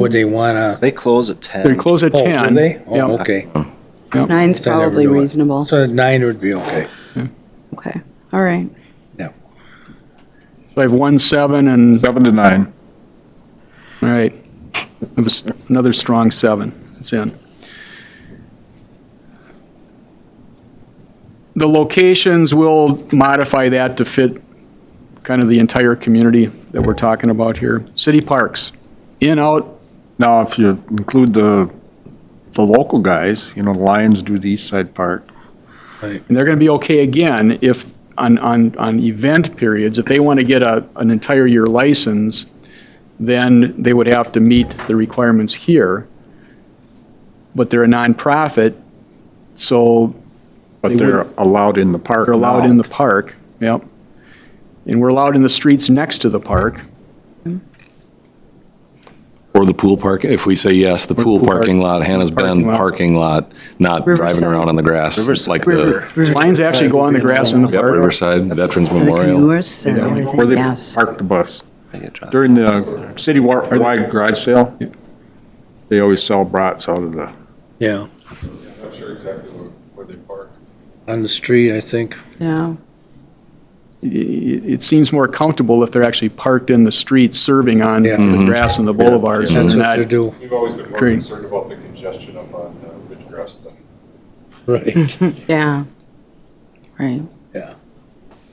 Would they wanna, They close at 10. They close at oh, 10. do they? Yep. Oh, okay. Nine's Then they would probably do it. reasonable. So nine would be okay. Okay, all right. So I have one, seven, and, Seven to nine. all right. That was Another strong seven. It's in. The locations will modify that to fit kind of the entire community that we're talking about here. City parks, in, out, Now, if you include the, the local guys, you know, the Lions do the East Side Park. and they're going to be okay again if, on, on, on event periods, if they want to get a, an entire year license, then they would have to meet the requirements here. But they're a nonprofit, so They But they're allowed in the park they're allowed in now. the park, yep. And we're allowed in the streets next to the park. Or the pool park, if we say yes, the pool pool park- parking lot, Hannah's Bend parking lot. parking lot, not driving Riverside. around on the grass, Riverside. like the Lines actually go on the grass in the Yep, park. Riverside Veterans Those Memorial. newer stuff, Where everything, they yes. park the bus. They get dropped. During the city-wide garage sale, they always sell brats out of the, Yeah, Not sure exactly where where they park. on the street, I think. Yeah, It, it seems more comfortable if they're actually parked in the streets, serving on Yeah. the grass and the boulevards and That's what not they do, We've always been more Great. concerned about the congestion up on uh, Ridgecrest than right. yeah, right.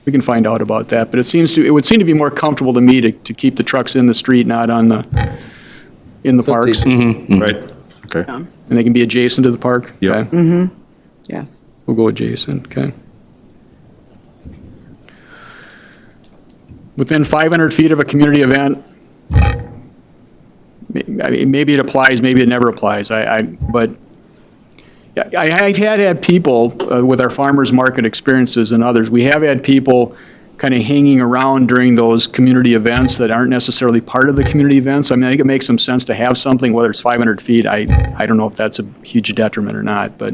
We can find out about that, but it seems to, it would seem to be more comfortable to me to, to keep the trucks in the street, not on the, in the parks, and Mm-hmm, right? Okay. they can be adjacent to the park? Yeah. Okay, Yes. We'll go adjacent, okay. Within 500 feet of a community event, may- I mean, maybe it applies, maybe it never applies, I, I, but yeah, I, I had had people uh, with our farmers market experiences and others, we have had people kind of hanging around during those community events that aren't necessarily part of the community events. I mean, I think it makes some sense to have something, whether it's 500 feet, I, I don't know if that's a huge detriment or not, but,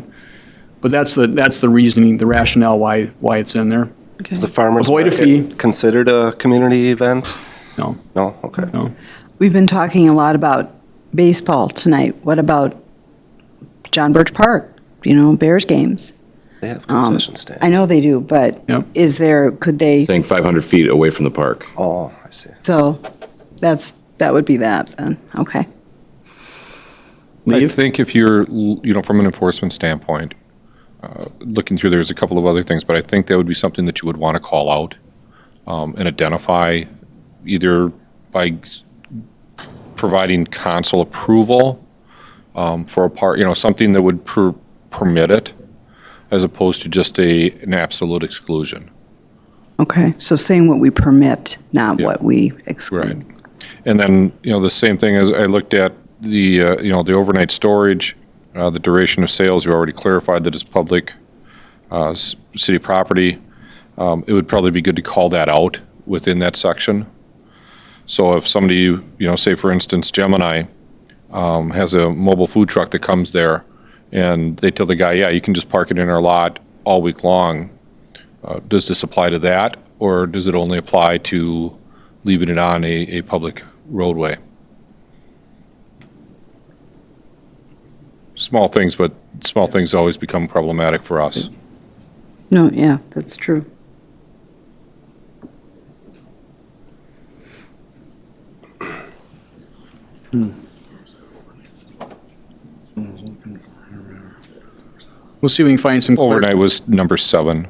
but that's the, that's the reasoning, the rationale why, why it's in there. Okay. Is the farmer's Avoid a fee. market considered a community event? No, No, okay. no. We've been talking a lot about baseball tonight. What about John Birch Park? You know, Bears games? They have Um, concession stands. I know they do, but Yep. is there, could they, Saying 500 feet away from the park. Oh, I see. so that's, that would be that then, okay. I think if you're, l- you know, from an enforcement standpoint, uh, looking through, there's a couple of other things, but I think that would be something that you would want to call out um, and identify either by s- providing council approval um, for a part, you know, something that would per- permit it as opposed to just a, an absolute exclusion. Okay, so saying what we permit, not Yeah. what we exclude. And then, you know, the same thing as I looked at the, uh, you know, the overnight storage, uh, the duration of sales, you already clarified that it's public, uh, s- city property. Um, it would probably be good to call that out within that section. So if somebody, you know, say for instance Gemini, um, has a mobile food truck that comes there and they tell the guy, yeah, you can just park it in our lot all week long. Uh, does this apply to that or does it only apply to, leaving it on a, a public roadway. Small things, but small things always become problematic for us. No, yeah, that's true. We'll see if we can find some. clar- Overnight was number seven,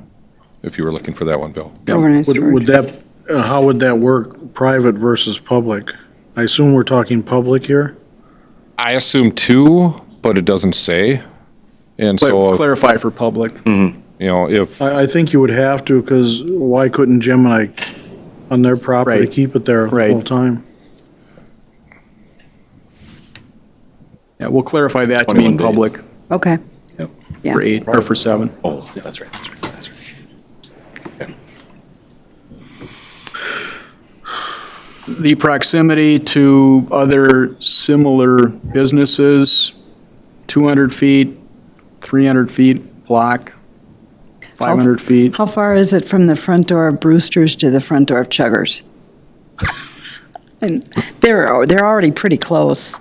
if you were looking for that one, Bill. Overnight Would, would storage. that, uh, how would that work, private versus public? I assume we're talking public here? I assume two, but it doesn't say. And Cla- so, if- Clarify for public. you know, if, I, I think you would have to, because why couldn't Gemini on their property Right. keep it there the Right. whole time? Yeah, we'll clarify that to mean 21 days. public Okay, Yeah. for eight, or for seven. Oh, that's right, that's right, that's right. The proximity to other similar businesses, 200 feet, 300 feet block, 500 feet. how far is it from the front door of Brewster's to the front door of Chuggers? And they're, they're already pretty close.